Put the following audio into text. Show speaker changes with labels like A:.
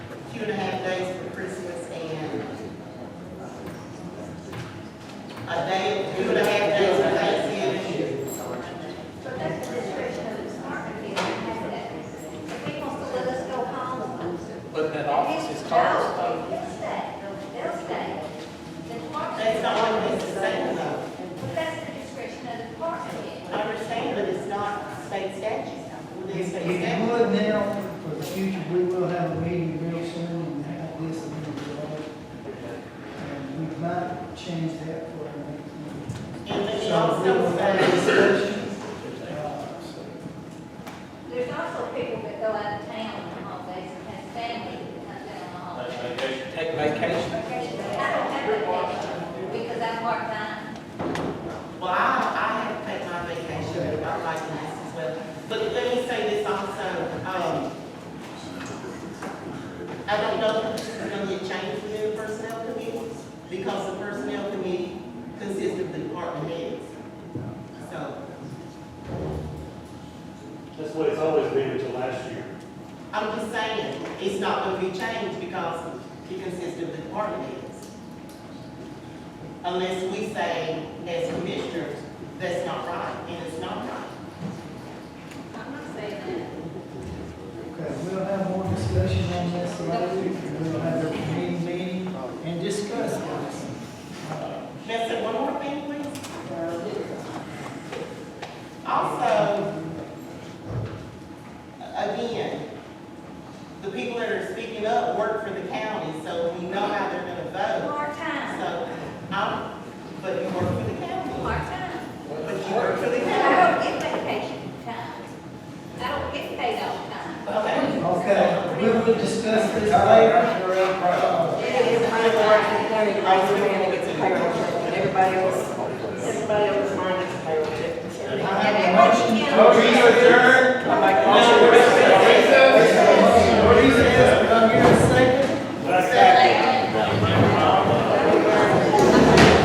A: two and a half days for Christmas and a day, two and a half days for Thanksgiving.
B: But that's the situation of the department, is they have that, the people still let us go home.
C: But that
B: And
C: office
B: it's
C: is
B: no,
C: closed, though.
B: They'll stay, They'll- they'll stay. The department-
A: That's not what this is saying though.
B: But that's the discretion of the department. head.
A: I understand, but it's not state statute. Within
D: If if
A: state
D: you
A: statute.
D: would now, for the future, we will have a meeting real soon and have this and that. And we might change that for our next meeting.
A: And then it
D: So we
A: also
D: will have
A: says,
D: discussions. uh,
B: There's also people that go out of town on holidays and have family that comes down on holidays.
C: Take vacation.
B: Vacation, but I don't have a vacation because I'm part-time.
A: well, I, I have to take my vacation, but I'm liking this as well. But let me say this also, um, I don't know if this is gonna get changed within the personnel committee, because the personnel committee consists of the department heads. So,
E: That's what it's always been until last year.
A: I'm just saying, it's not gonna be changed because it consists of the department heads. Unless we say, as commissioners, that's not right, and it's not right.
B: I'm not saying
D: Okay, we'll have more discussion on this later. We'll have a meeting, meeting and discuss this.
A: Let's say one more thing, please. Also, again, the people that are speaking up work for the county, so we know how they're gonna
B: that.
A: vote.
B: Part-time,
A: So, I'm, but you work for the county.
B: part-time.
A: But you work for the
B: I
A: county.
B: don't get vacation time. I don't get paid all the time.
A: Okay.
D: Okay, we will discuss this later. Uh,
A: I was gonna get to the-
F: Everybody else, everybody else minus payroll check.
A: I
B: And
A: have a
B: everybody
A: motion.
B: can-
D: Motion to adjourn.